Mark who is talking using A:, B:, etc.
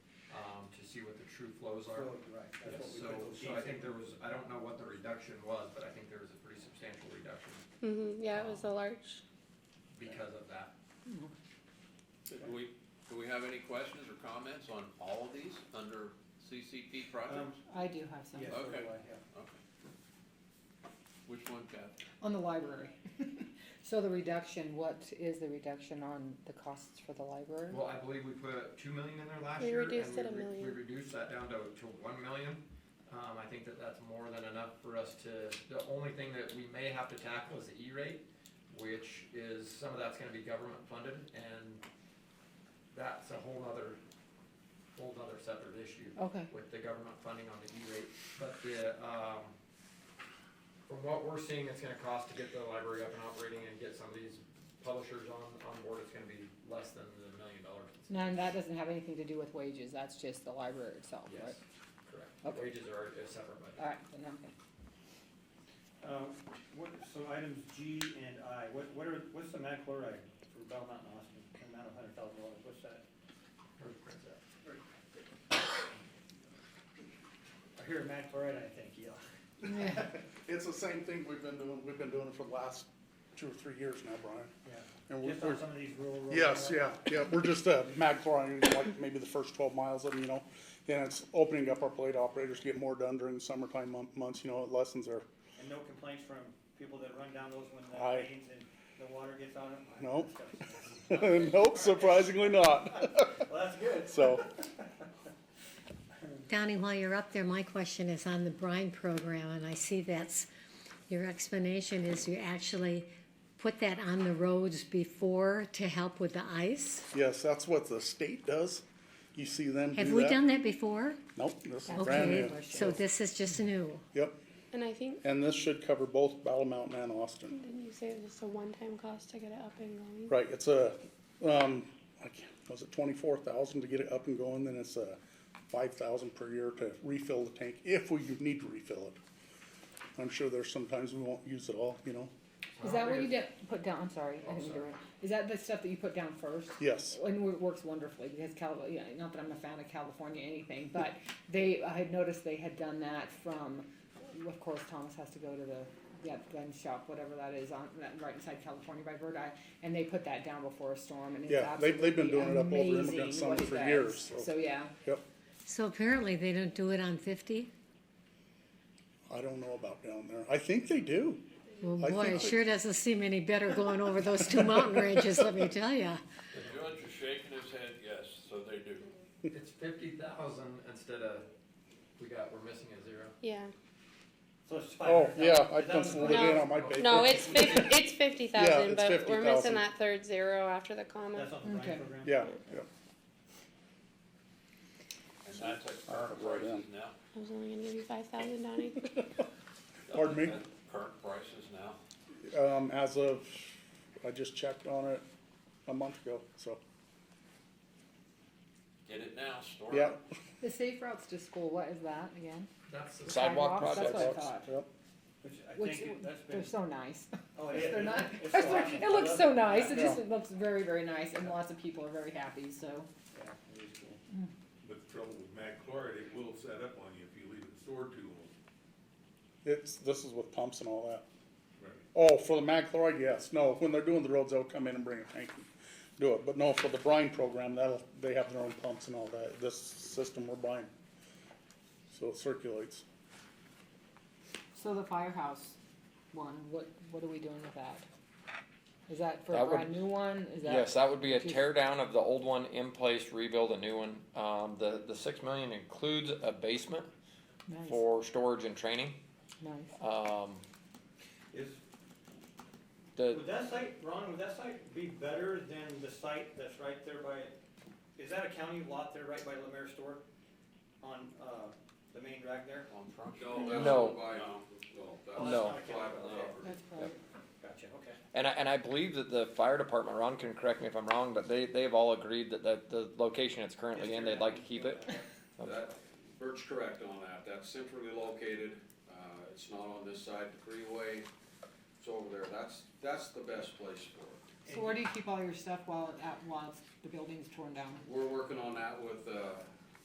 A: um, see what the true flows are.
B: Right, that's what we
A: So,
B: put those
A: so I
B: sheets in.
A: think there was, I don't know what the reduction was, but I think there was a pretty substantial reduction
C: Mm-hmm, yeah, it was a large,
A: because of that.
D: Do we, do we have any questions or comments on all of these under CCP projects?
E: I do have some.
B: Yeah, so do
D: Okay.
B: I, yeah.
D: Okay. Which one, Kathy?
E: On the library. So the reduction, what is the reduction on the costs for the library?
A: Well, I believe we put two million in there last
C: We
A: year. and
C: reduced it a
A: we re-
C: million.
A: We reduced that down to, to one million. Um, I think that that's more than enough for us to, the only thing that we may have to tackle is the E-rate, which is, some of that's gonna be government funded, and that's a whole other, whole other separate issue
E: Okay,
A: with the government funding on the E-rate. But the, um, from what we're seeing, it's gonna cost to get the library up and operating and get some of these publishers on, on board, it's gonna be less than the million dollars.
E: now, and that doesn't have anything to do with wages, that's just the library itself, right?
A: Yes, correct.
E: Okay.
A: Wages are a separate budget.
E: Alright, then I'm good.
B: Uh, what, so items G and I, what, what are, what's the mag chloride for Belmont and Austin, amount of hundred thousand dollars, what's that? I hear mag chloride, I think, yeah.
E: Yeah.
F: It's the same thing we've been doing, we've been doing it for the last two or three years now, Brian.
B: Yeah,
F: And we're,
B: just
F: we're,
B: on some of these rural. roads,
F: yes,
B: right?
F: yeah, yeah, we're just, uh, mag chlorine, like maybe the first twelve miles of, 'em, you know. And it's opening up our plate operators to get more done during summertime mon- months, you know, it lessens their,
B: And no complaints from people that run down those when the
F: I-
B: rains and the water gets on them?
F: Nope. nope, surprisingly not,
B: Well, that's good.
F: so.
G: Donnie, while you're up there, my question is on the brine program, and I see that's, your explanation is you actually put that on the roads before to help with the ice?
F: Yes, that's what the state does. You see them do that.
G: Have we done that before?
F: Nope, this is brand
G: Okay,
F: new.
G: so this is just new.
F: Yep,
C: and I think,
F: and this should cover both Battle Mountain and Austin.
C: didn't you say it was just a one-time cost to get it up and going?
F: Right, it's a, um, I can't, was it twenty-four thousand to get it up and going, then it's a five thousand per year to refill the tank, if we need to refill it. I'm sure there's sometimes we won't use it all, you know,
E: Is that what you did, put down, I'm sorry, I
A: Oh,
E: didn't mean to
A: sorry.
E: interrupt. Is that the stuff that you put down first?
F: yes,
E: And it works wonderfully because Cal, yeah, not that I'm a fan of California anything, but they, I had noticed they had done that from, of course, Thomas has to go to the, yeah, gun shop, whatever that is on, that, right inside California by Verdi, and they put that down before a storm and it's
F: Yeah, they- they've been
E: absolutely
F: doing it up over Immigrant
E: amazing
F: Summit
E: what it
F: for
E: does.
F: years, so-
E: So, yeah,
F: yep.
G: So apparently they don't do it on fifty?
F: I don't know about down there, I think they do,
G: Well,
F: I
G: boy,
F: think
G: it
F: they-
G: sure doesn't seem any better going over those two mountain ranges, let me tell ya.
D: The judge is shaking his head, yes, so they do.
A: It's fifty thousand instead of, we got, we're missing a zero.
C: Yeah,
B: So it's five
F: oh,
B: hundred thousand.
F: yeah, I penciled it in on my
A: No.
F: paper.
C: no, it's fifty, it's fifty thousand,
F: it's
C: but we're missing
F: 50,000.
C: that third zero after the comma.
B: That's on the
E: Okay.
B: Ryan program?
F: Yeah, yeah,
D: And that's at
F: Alright,
D: current
F: right
D: prices now.
C: I was only gonna give you five thousand, Donnie.
F: Pardon me?
D: At Current prices now.
F: um, as of, I just checked on it a month ago, so,
D: Get it now, store it.
F: yeah.
E: the safe routes to school, what is that again?
A: That's the
E: Sidewalk That's what I
F: Sidewalks,
E: thought.
F: Yep,
B: Which I
E: Which,
B: think that's been.
E: they're so nice.
B: Oh, it is.
E: They're not,
B: It's so awesome.
E: it looks so nice, it
F: Yeah.
E: just it looks very, very nice and lots of people are very happy, so.
B: Yeah, it is cool.
H: But the trouble with mag chloride, it will set up on you if you leave it stored too long.
F: it's, this is with pumps and all that.
H: Right.
F: Oh, for the mag chloride, yes. No, when they're doing the roads, they'll come in and bring a tank and do it. But no, for the brine program, that'll, they have their own pumps and all that. This system we're buying. So it circulates.
E: So the firehouse one, what, what are we doing with that? Is that for a
I: That would-
E: brand new one? Is that?
I: Yes, that would be a
E: Just-
I: tear down of the old one, in place, rebuild a new one. Um, the, the six million includes a basement
E: Nice,
I: for storage and training.
E: nice.
I: Um,
B: Is,
I: the,
B: would that site, Ron, would that site be better than the site that's right there by, is that a county lot there right by Lemare Store? On, uh, the main drag there?
D: On front.
I: No.
J: um,
B: Oh, that's
I: No.
B: not a county lot, okay.
E: That's probably,
B: Gotcha, okay.
I: and I, and I believe that the fire department, Ron can correct me if I'm wrong, but they, they've all agreed that the, the location it's currently in, they'd like to keep it.
J: That, Bert's correct on that, that's centrally located, uh, it's not on this side of the freeway, it's over there, that's, that's the best place for it.
E: so where do you keep all your stuff while, at, while the building's torn down?
J: We're working on that with, uh,